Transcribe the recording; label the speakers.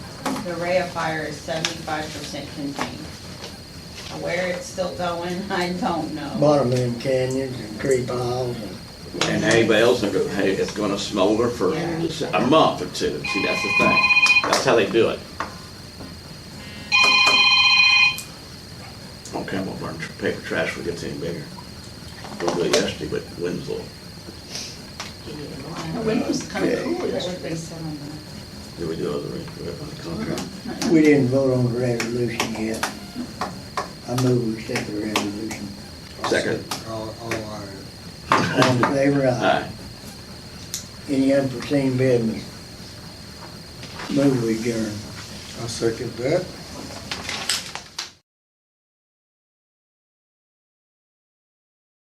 Speaker 1: the Ray of Fire is seventy-five percent contained. Where it's still going, I don't know.
Speaker 2: bottom of them canyons and creek piles and.
Speaker 3: And anybody else, they're gonna- hey, it's gonna smolder for
Speaker 1: Yeah.
Speaker 3: a month or two. See, that's the thing. That's how they do it. On Campbell Burn, tr- paper trash will get any bigger. We'll do it yesterday with Winslow.
Speaker 1: The wind was kinda
Speaker 2: Yeah.
Speaker 1: cool yesterday.
Speaker 3: Did we do other, we have a contract?
Speaker 2: We didn't vote on the resolution yet. I move we set the resolution.
Speaker 3: Second.
Speaker 4: All, all our,
Speaker 2: All in favor, aye.
Speaker 3: Aye.
Speaker 2: Any unforeseen business? Move we adjourn.
Speaker 4: I second that.